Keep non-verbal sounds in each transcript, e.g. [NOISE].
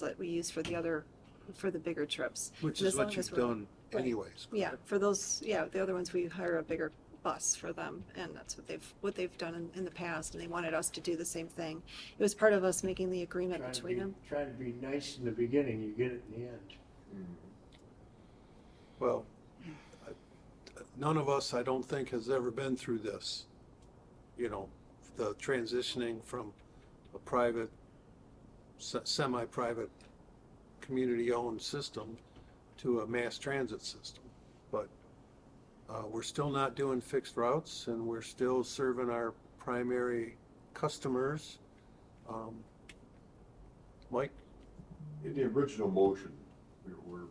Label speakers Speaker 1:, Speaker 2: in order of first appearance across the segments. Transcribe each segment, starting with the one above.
Speaker 1: that we use for the other, for the bigger trips.
Speaker 2: Which
Speaker 1: And
Speaker 2: is
Speaker 1: as long
Speaker 2: what you've
Speaker 1: as we're-
Speaker 2: done
Speaker 1: right.
Speaker 2: anyways.
Speaker 1: Yeah, for those, yeah, the other ones, we hire a bigger bus for them, and that's what they've, what they've done in, in the past, and they wanted us to do the same thing. It was part of us making the agreement
Speaker 3: Trying to be-
Speaker 1: between them.
Speaker 3: Trying to be nice in the beginning, you get it in the end.
Speaker 2: Well, I- none of us, I don't think, has ever been through this. You know, the transitioning from a private, se- semi-private, community-owned system to a mass transit system. But uh, we're still not doing fixed routes and we're still serving our primary customers. Um, Mike,
Speaker 4: In the original motion, we were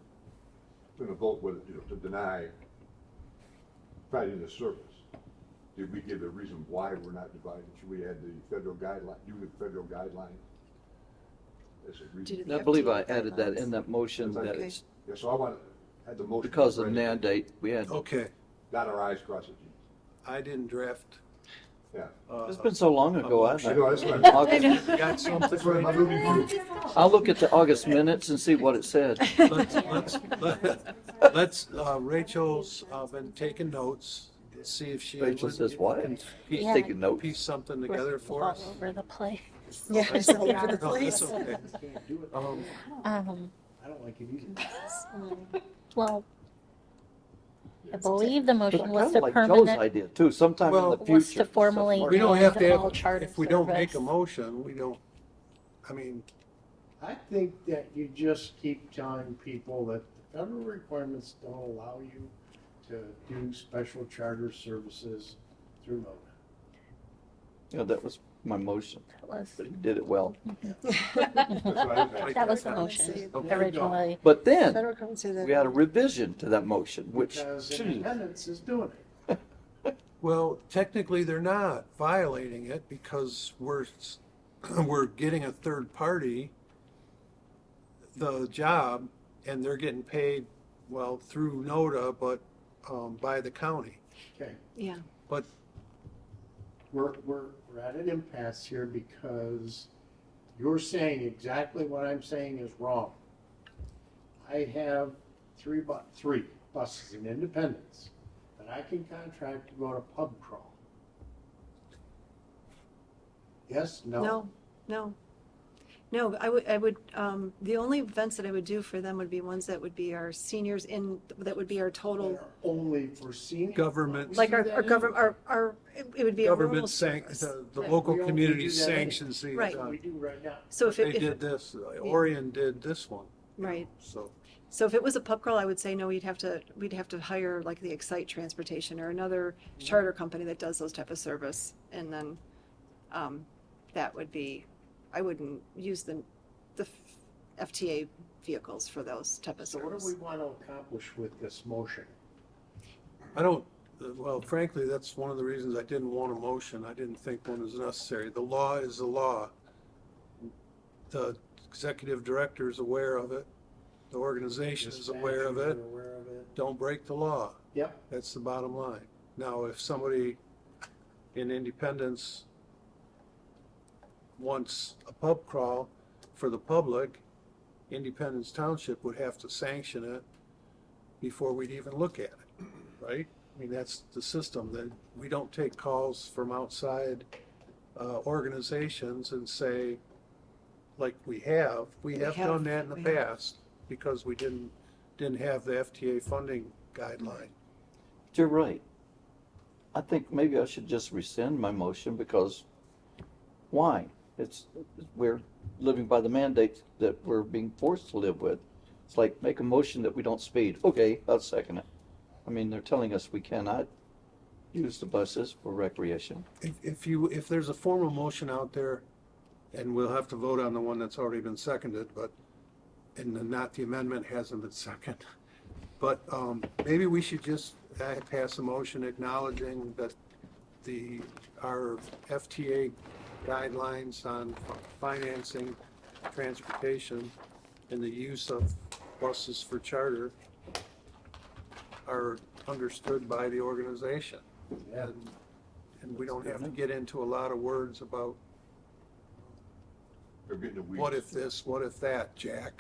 Speaker 4: gonna vote whether, you know, to deny providing the service. Did we give a reason why we're not dividing? Should we add the federal guideline, do the federal guideline? As a
Speaker 1: due to
Speaker 4: reason?
Speaker 1: the
Speaker 5: I believe I
Speaker 1: FTA
Speaker 5: added that in
Speaker 1: guidelines.
Speaker 5: that motion that
Speaker 1: [LAUGHS]
Speaker 4: Okay.
Speaker 5: it's
Speaker 4: Yeah, so I want, to add the motion.
Speaker 5: because of
Speaker 4: ready.
Speaker 5: mandate, we had,
Speaker 2: okay,
Speaker 4: Dot our i's, cross our t's.
Speaker 2: I didn't draft.
Speaker 4: Yeah.
Speaker 2: uh,
Speaker 5: it's
Speaker 2: [LAUGHS]
Speaker 5: been so long ago. I
Speaker 4: I know, that's
Speaker 5: [LAUGHS]
Speaker 4: what I'm-
Speaker 5: August-
Speaker 2: Got something
Speaker 4: That's what I'm,
Speaker 2: right
Speaker 4: I'm
Speaker 2: here?
Speaker 4: moving to.
Speaker 5: I'll look at the August minutes and see what it
Speaker 6: [LAUGHS]
Speaker 5: said.
Speaker 2: Let's, let's, let- let's, uh, Rachel's, uh, been taking notes, see if she.
Speaker 5: Rachel
Speaker 2: would-
Speaker 5: says what?
Speaker 2: can
Speaker 5: He's
Speaker 2: Piece,
Speaker 6: Yeah.
Speaker 5: taking notes.
Speaker 2: piece something
Speaker 6: We're
Speaker 2: together for us.
Speaker 6: All over the place.
Speaker 1: Yeah, it's
Speaker 2: That's okay.
Speaker 1: all over the
Speaker 2: No, that's
Speaker 1: place.
Speaker 2: okay.
Speaker 3: You can't do it.
Speaker 2: Um,
Speaker 6: Um,
Speaker 3: I don't like it either.
Speaker 6: well, I
Speaker 4: Yeah.
Speaker 6: believe the
Speaker 5: But I
Speaker 6: motion was
Speaker 5: kinda
Speaker 6: to
Speaker 5: like Joe's
Speaker 6: permanent,
Speaker 5: idea too, sometime in
Speaker 2: Well-
Speaker 5: the
Speaker 2: What's
Speaker 5: future.
Speaker 6: was to
Speaker 5: stuff
Speaker 6: formally.
Speaker 5: like
Speaker 2: We don't
Speaker 6: end
Speaker 2: have to
Speaker 6: all
Speaker 2: have,
Speaker 6: charter
Speaker 2: if we don't make a
Speaker 6: service.
Speaker 2: motion, we don't, I mean,
Speaker 3: I think that you just keep telling people that the federal requirements don't allow you to do special charter services through MONA.
Speaker 5: that. Yeah, that was my motion,
Speaker 6: That was-
Speaker 5: but he did it well.
Speaker 4: That's what I was asking.
Speaker 6: That was the
Speaker 2: I
Speaker 1: don't see
Speaker 6: motion
Speaker 2: it. Okay.
Speaker 6: originally.
Speaker 5: But then,
Speaker 1: Federal government said that-
Speaker 5: we had a revision to that motion, which,
Speaker 3: Because independence is doing it.
Speaker 2: well, technically, they're not violating it because we're, s- [CLEARS THROAT] we're getting a third party the job and they're getting paid, well, through NODA, but, um, by the county.
Speaker 3: Okay,
Speaker 1: Yeah,
Speaker 2: But
Speaker 3: we're, we're, we're at an impasse here because you're saying exactly what I'm saying is wrong. I have three bu, three buses in Independence that I can contract to go to pub crawl. Yes, no?
Speaker 1: no, no. No, I would, I would, um, the only events that I would do for them would be ones that would be our seniors in, that would be our total,
Speaker 3: They're only for seniors.
Speaker 2: Government-
Speaker 1: like our, our government, our, our, it would be a rural
Speaker 2: government sanc,
Speaker 1: service.
Speaker 2: the, the
Speaker 1: Right.
Speaker 2: local
Speaker 3: We don't
Speaker 2: community
Speaker 3: do that anyway.
Speaker 2: sanctions these.
Speaker 1: Right.
Speaker 2: uh,
Speaker 3: We do right now.
Speaker 1: So if,
Speaker 2: They
Speaker 1: it-
Speaker 2: did
Speaker 1: if,
Speaker 2: this, uh, Orion did this one,
Speaker 1: right.
Speaker 2: so,
Speaker 1: So if it was a pub crawl, I would say no, we'd have to, we'd have to hire like the Excite Transportation or another
Speaker 3: Mm-hmm.
Speaker 1: charter company that does those type of service. And then, um, that would be, I wouldn't use the, the FTA vehicles for those type of
Speaker 3: So what do
Speaker 1: service.
Speaker 3: we want to accomplish with this motion?
Speaker 2: I don't, uh, well, frankly, that's one of the reasons I didn't want a motion, I didn't think one was necessary, the law is the law. The executive director is aware of it, the organization is aware of it,
Speaker 3: Dispatchers are Aware of it.
Speaker 2: don't break the law.
Speaker 3: Yep,
Speaker 2: That's the bottom line. Now, if somebody in Independence wants a pub crawl for the public, Independence Township would have to sanction it before we'd even look at it, right? I mean, that's the system, that we don't take calls from outside uh, organizations and say, like we have, we
Speaker 1: We
Speaker 2: have
Speaker 1: have,
Speaker 2: done that in the
Speaker 1: we have.
Speaker 2: past because we didn't, didn't have the FTA funding guideline.
Speaker 5: you're right. I think maybe I should just rescind my motion because why? It's, we're living by the mandates that we're being forced to live with. It's like, make a motion that we don't speed. Okay, I'll second it. I mean, they're telling us we cannot use the buses for recreation.
Speaker 2: If, if you, if there's a formal motion out there, and we'll have to vote on the one that's already been seconded, but, and the- not the amendment hasn't been [LAUGHS] seconded. But, um, maybe we should just uh, pass a motion acknowledging that the, our FTA guidelines on financing, transportation, and the use of buses for charter are understood by the organization.
Speaker 3: yeah.
Speaker 2: And, and we don't have to get into a lot of words about
Speaker 4: they're getting the weeds.
Speaker 2: What if this, what if that, Jack?